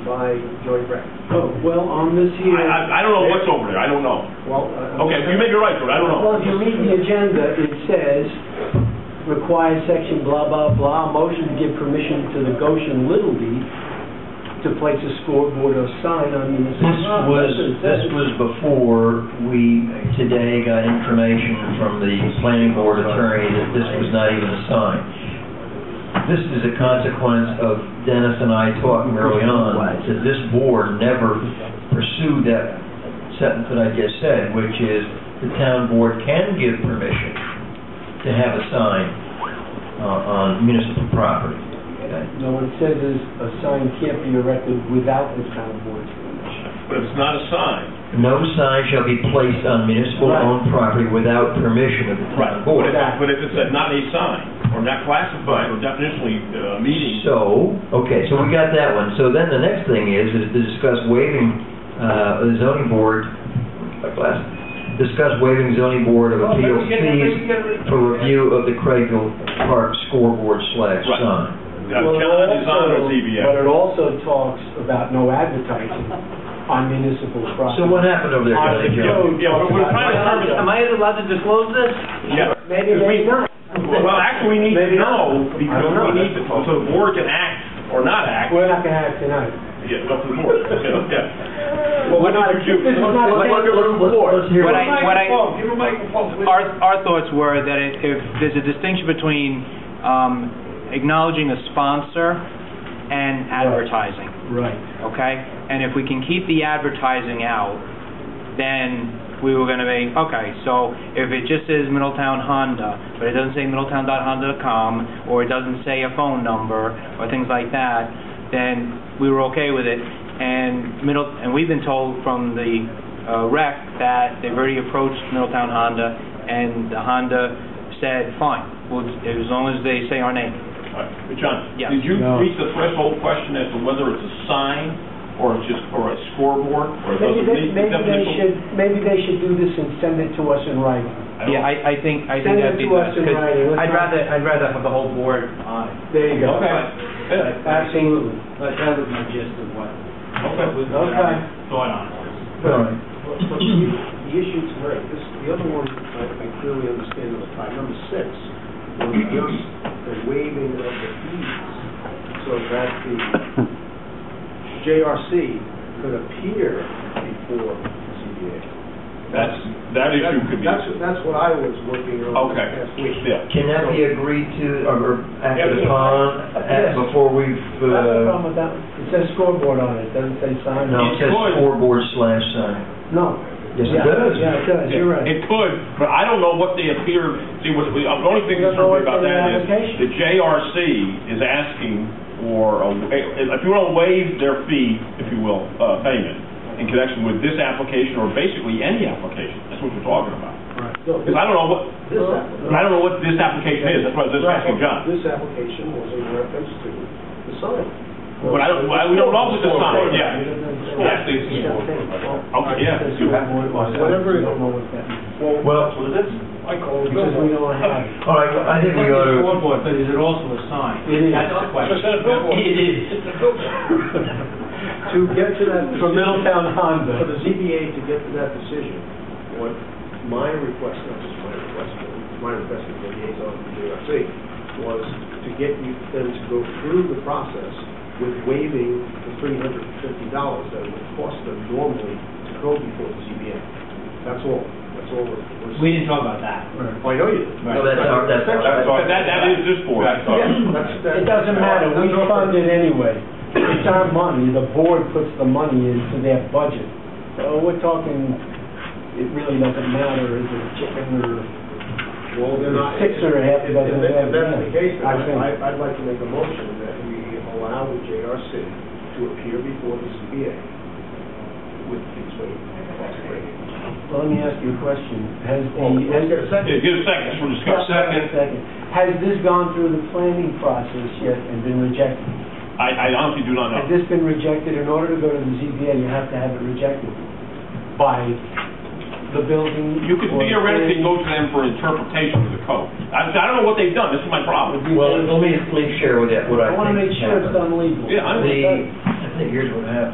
by Joey Brett. Oh, well, on this I, here. I- I don't know what's over there, I don't know. Well, uh, Okay, you may be right, George, I don't know. Well, if you read the agenda, it says, requires section blah, blah, blah, motion to give permission to the Goshen Little League to place a scoreboard or sign on municipal. This was, this was before we today got information from the planning board attorney that this was not even a sign. This is a consequence of Dennis and I talking early on, that this board never pursued that sentence that I just said, which is the town board can give permission to have a sign uh, on municipal property. Okay? No, it says is, a sign can't be erected without the town board's permission. But if it's not a sign, No sign shall be placed on municipal-owned property without permission of the town right, but board. if, but if it's a not a sign, or not classified, or definitionally, uh, meeting, So, okay, so we got that one. So then the next thing is, is to discuss waiving, uh, the zoning board, my class, discuss waiving zoning board of appeals fees for review of the Craigville Park scoreboard slash Right. sign. uh, John is on But or ZBA. it also talks about no advertising on municipal property. So what happened over there, Our Uh, Kelly Jo? code Yeah, we're- we're talks trying to about- determine- Am I allowed to disclose this? Yeah. Maybe, maybe not. Well, actually, we need to Maybe not. know, I because don't know. we need to, so the board can act or not act, We're not gonna have it tonight. yeah, up to the board, yeah, yeah. Well, we're not, did you- this is not a Let's- thing let's- for the let's- board. let's hear What what- I- what I- Microphone, give him a microphone, please. Our, our thoughts were that if, if there's a distinction between, um, acknowledging a sponsor and advertising. Right. okay? And if we can keep the advertising out, then we were gonna be, okay, so if it just says Middletown Honda, but it doesn't say middletown.honda.com, or it doesn't say a phone number, or things like that, then we were okay with it. And middle, and we've been told from the uh, rec that they've already approached Middletown Honda, and the Honda said, fine, well, as long as they say our name. All right, but John, Yeah. did you No. reach the threshold question as to whether it's a sign or it's just, or a scoreboard, or does Maybe it they, meet the maybe they definition? should, maybe they should do this and send it to us in writing. I don't- Yeah, I, I think, I Send think it that'd be to us best, in 'cause writing. Let's I'd not- rather, I'd rather have the whole board on it. There you go. Okay. Yeah, Absolutely. But that was my gist of what, okay. what Okay. I thought on it. All right. But but the the issue tonight, this, the other one, I I clearly understand at the time, number six, was just the waiving of the fees, so that the JRC could appear before ZBA. That's, that issue could be, That's, that's what I was looking on Okay. last week. yeah. Can that be agreed to, or or acted Yeah. upon, Yes. at- before we've, That's the uh, problem with that. It says scoreboard on it, doesn't say sign. no, it says It's good. scoreboard slash sign. No. Yes, it Yeah, does. Yeah, it does, you're right. It could, but I don't know what they appear, see, what, the only thing that's true about that is, the JRC is asking for, a wa- if you want to waive their fee, if you will, uh, payment, in connection with this application, or basically any application, that's what we're talking about. No, Because I don't know what, This application. I don't know what this application is, that's why I was just asking John. This application was in reference to the sign. But I don't- well, we don't know if it's a sign, yeah. Yes, it's- Okay, yeah, you have- Whatever. We don't know what that means. Well, Was this, I call it, Because we don't have. all right, well, I think we ought to, Scoreboard, but is it also a sign? It is. That's the question. It is. To get to that. From Middletown For Honda. the ZBA to get to that decision, what my request, not just my request, but my request to the liaison to the JRC, was to get you then to go through the process with waiving the three hundred and fifty dollars that it would cost them normally to go before the ZBA. That's all, that's all. we're- we're- We didn't talk about that. Oh, I know you did. no, that's our, that's our. That's all- That, that is this board. That's- that's- It doesn't matter, we That's all. fund it anyway. It's our money, the board puts the money into their budget. So we're talking, it really doesn't matter, is it chicken or, Well, then I. Six or a half if- dozen if- If that's dozen, the case, then I think. I- I'd like to make a motion that we allow the JRC to appear before the ZBA with these waivers. well, let me ask you a question. Has the, Well, let's get a has, Yeah, give a second, just we're discussing. Oh, second, has this gone through the planning process yet and been rejected? I, I honestly do not know. Has this been rejected? In order to go to the ZBA, you have to have it rejected by the building. You could or theoretically planning. go to them for interpretation of the code. I, I don't know what they've done, this is my problem. Would you Well, think- let me, let me share with you what I think. I want to make sure it's happened. done legally. Yeah, I The, here's what happened.